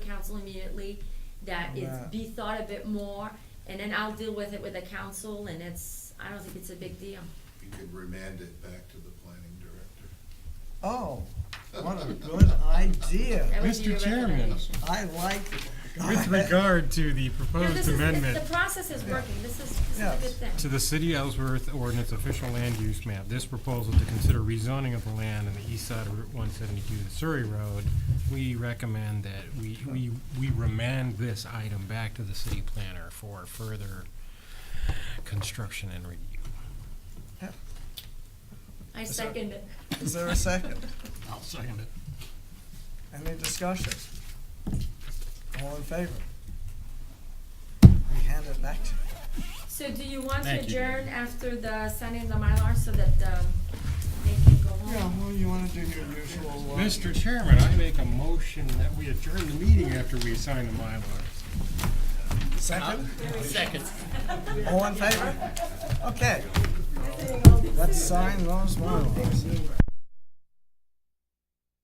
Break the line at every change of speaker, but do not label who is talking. council immediately, that it's
Right.
be thought a bit more, and then I'll deal with it with the council, and it's, I don't think it's a big deal.
You could remand it back to the planning director.
Oh, what a good idea.
That would be
Mr.
your
Chairman.
recommendation.
I like it.
With regard to the
No, this
proposed
is-
amendment
The process is working, this is, this is a
Yes.
good thing.
to the City of Ellsworth ordinance official land use map, this proposal to consider rezoning of the land on the east side of Route one seventy-two, the Surrey Road, we recommend that we, we, we remand this item back to the city planner for further construction and review.
I second it.
Is there a second?
I'll second it.
Any discussion? All in favor? We hand it back to,
So do you want to
Thank you.
adjourn after the signing the Mylar so that, um, they can go
yeah,
home?
well, you wanna do your usual, uh,
Mr. Chairman, I make a motion that we adjourn the meeting after we assign the Mylar.
second?
Second.
All in favor? Okay,
They all be-
let's sign those ones.